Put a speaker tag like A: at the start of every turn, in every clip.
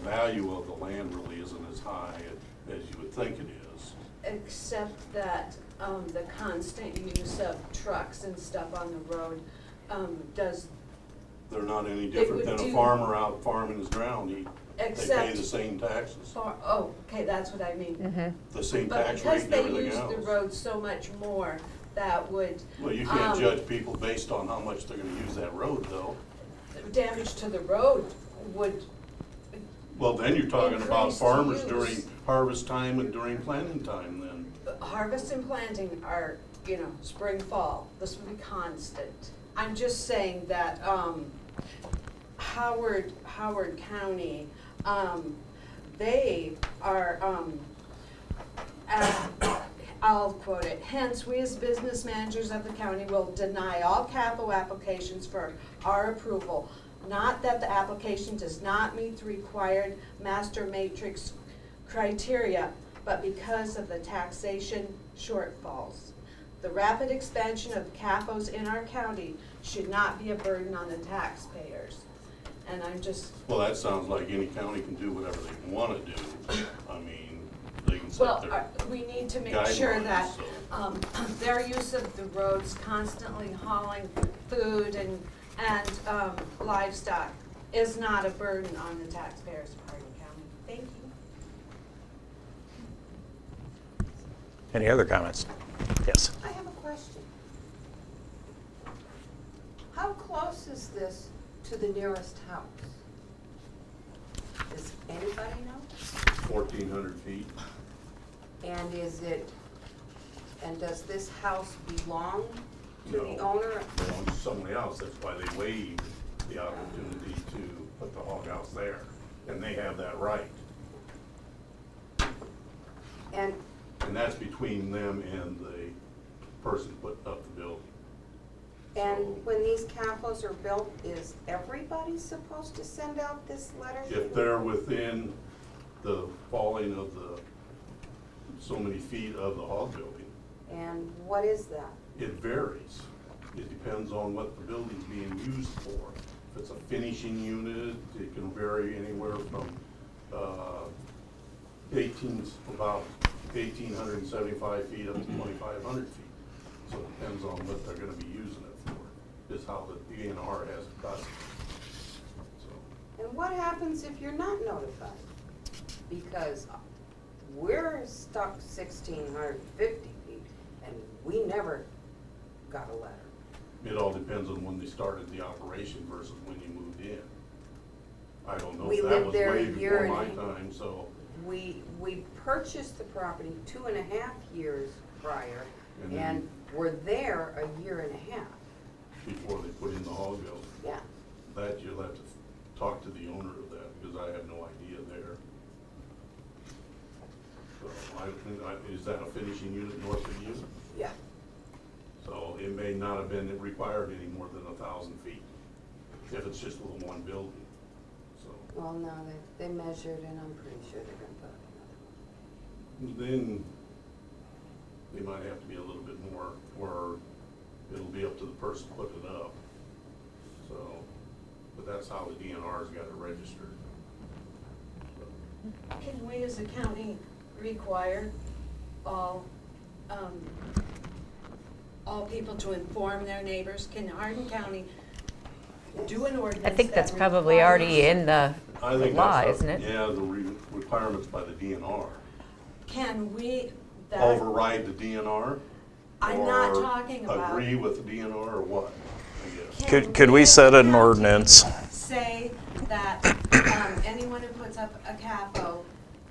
A: value of the land really isn't as high as you would think it is.
B: Except that, um, the constant use of trucks and stuff on the road, um, does,
A: They're not any
B: They
A: different
B: would
A: than a
B: do-
A: farmer out farming his ground, he, they pay
B: Except-
A: the same taxes,
B: far, oh, okay, that's what I mean.
A: the same
B: But
A: tax rate
B: because
A: and
B: they
A: everything
B: use
A: else.
B: the road so much more, that would.
A: Well, you can't
B: um,
A: judge people based on how much they're gonna use that road though.
B: Damage to the road would,
A: Well, then you're talking about
B: Increased
A: farmers
B: use.
A: during harvest time and during planting time then.
B: harvest and planting are, you know, spring, fall, this would be constant. I'm just saying that, um, Howard, Howard County, um, they are, um, uh, I'll quote it, hence, we as business managers of the county will deny all capital applications for our approval. Not that the application does not meet the required master matrix criteria, but because of the taxation shortfalls. The rapid expansion of capos in our county should not be a burden on the taxpayers. And I'm just,
A: Well, that sounds like any county can do whatever they wanna do. I mean, they can set
B: well,
A: their.
B: uh, we need to make sure
A: guidelines,
B: that
A: so.
B: um, their use of the roads constantly hauling food and, and um, livestock is not a burden on the taxpayers of Hardin County. Thank you.
C: Any other comments? Yes.
D: I have a question. How close is this to the nearest house? Does anybody know?
A: fourteen hundred feet.
D: And is it, and does this house belong to the
A: No.
D: owner?
A: belongs to somebody else, that's why they waived the opportunity to put the hog house there, and they have that right.
D: And,
A: And that's between them and the person putting up the building.
D: and when these capos are built, is everybody supposed to send out this letter?
A: If they're within the falling of the, so many feet of the hog building,
D: And what is that?
A: it varies. It depends on what the building's being used for. If it's a finishing unit, it can vary anywhere from, uh, eighteen, about eighteen hundred and seventy-five feet up to twenty-five hundred feet. So it depends on what they're gonna be using it for, is how the DNR has it cut. So,
D: And what happens if you're not notified? Because we're stuck sixteen hundred fifty feet and we never got a letter.
A: It all depends on when they started the operation versus when you moved in. I don't know
D: We
A: if that
D: lived
A: was
D: there a
A: way
D: year
A: before
D: and
A: my
D: a-
A: time, so.
D: We, we purchased the property two and a half years prior
A: And then-
D: and were there a year and a half.
A: before they put in the hog building.
D: Yeah.
A: That you'll have to talk to the owner of that, because I have no idea there. So I, think I- is that a finishing unit north of you?
D: Yeah.
A: So it may not have been required any more than a thousand feet, if it's just with one building, so.
D: Well, no, they, they measured and I'm pretty sure they're gonna put another
A: Then they might have to be a little bit more, or it'll be up to the person putting it up. So, but that's how the DNR's got it registered. So.
B: Can we as a county require all, um, all people to inform their neighbors? Can Hardin County do an ordinance
E: I think that's
B: that
E: probably already
B: requires-
E: in the
A: I think
E: law,
A: that's a-
E: isn't it?
A: Yeah, the re- requirements by the DNR.
B: Can we, that,
A: Override the DNR?
B: I'm not
A: or
B: talking about-
A: Agree with the DNR or what, I guess.
B: Can
C: Could, could we
B: as
C: set
B: a
C: an
B: county
C: ordinance?
B: Say that, um, anyone who puts up a capo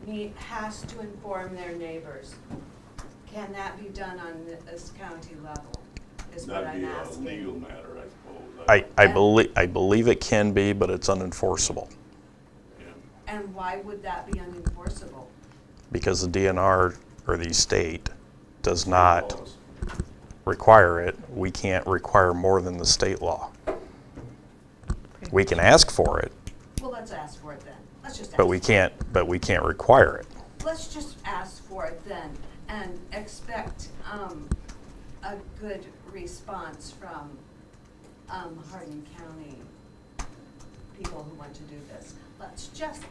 B: need, has to inform their neighbors. Can that be done on this county level, is what
A: That'd
B: I'm
A: be a
B: asking.
A: legal matter, I suppose.
C: I, I believe, I believe it can be, but it's unenforceable
A: Yeah.
B: And why would that be unenforceable?
C: because the DNR or the state does not
A: Laws.
C: require it. We can't require more than the state law. We can ask for it,
B: Well, let's ask for it then. Let's just ask.
C: but we
B: for it.
C: can't, but we can't require it.
B: Let's just ask for it then and expect, um, a good response from, um, Hardin County people who want to do this. Let's just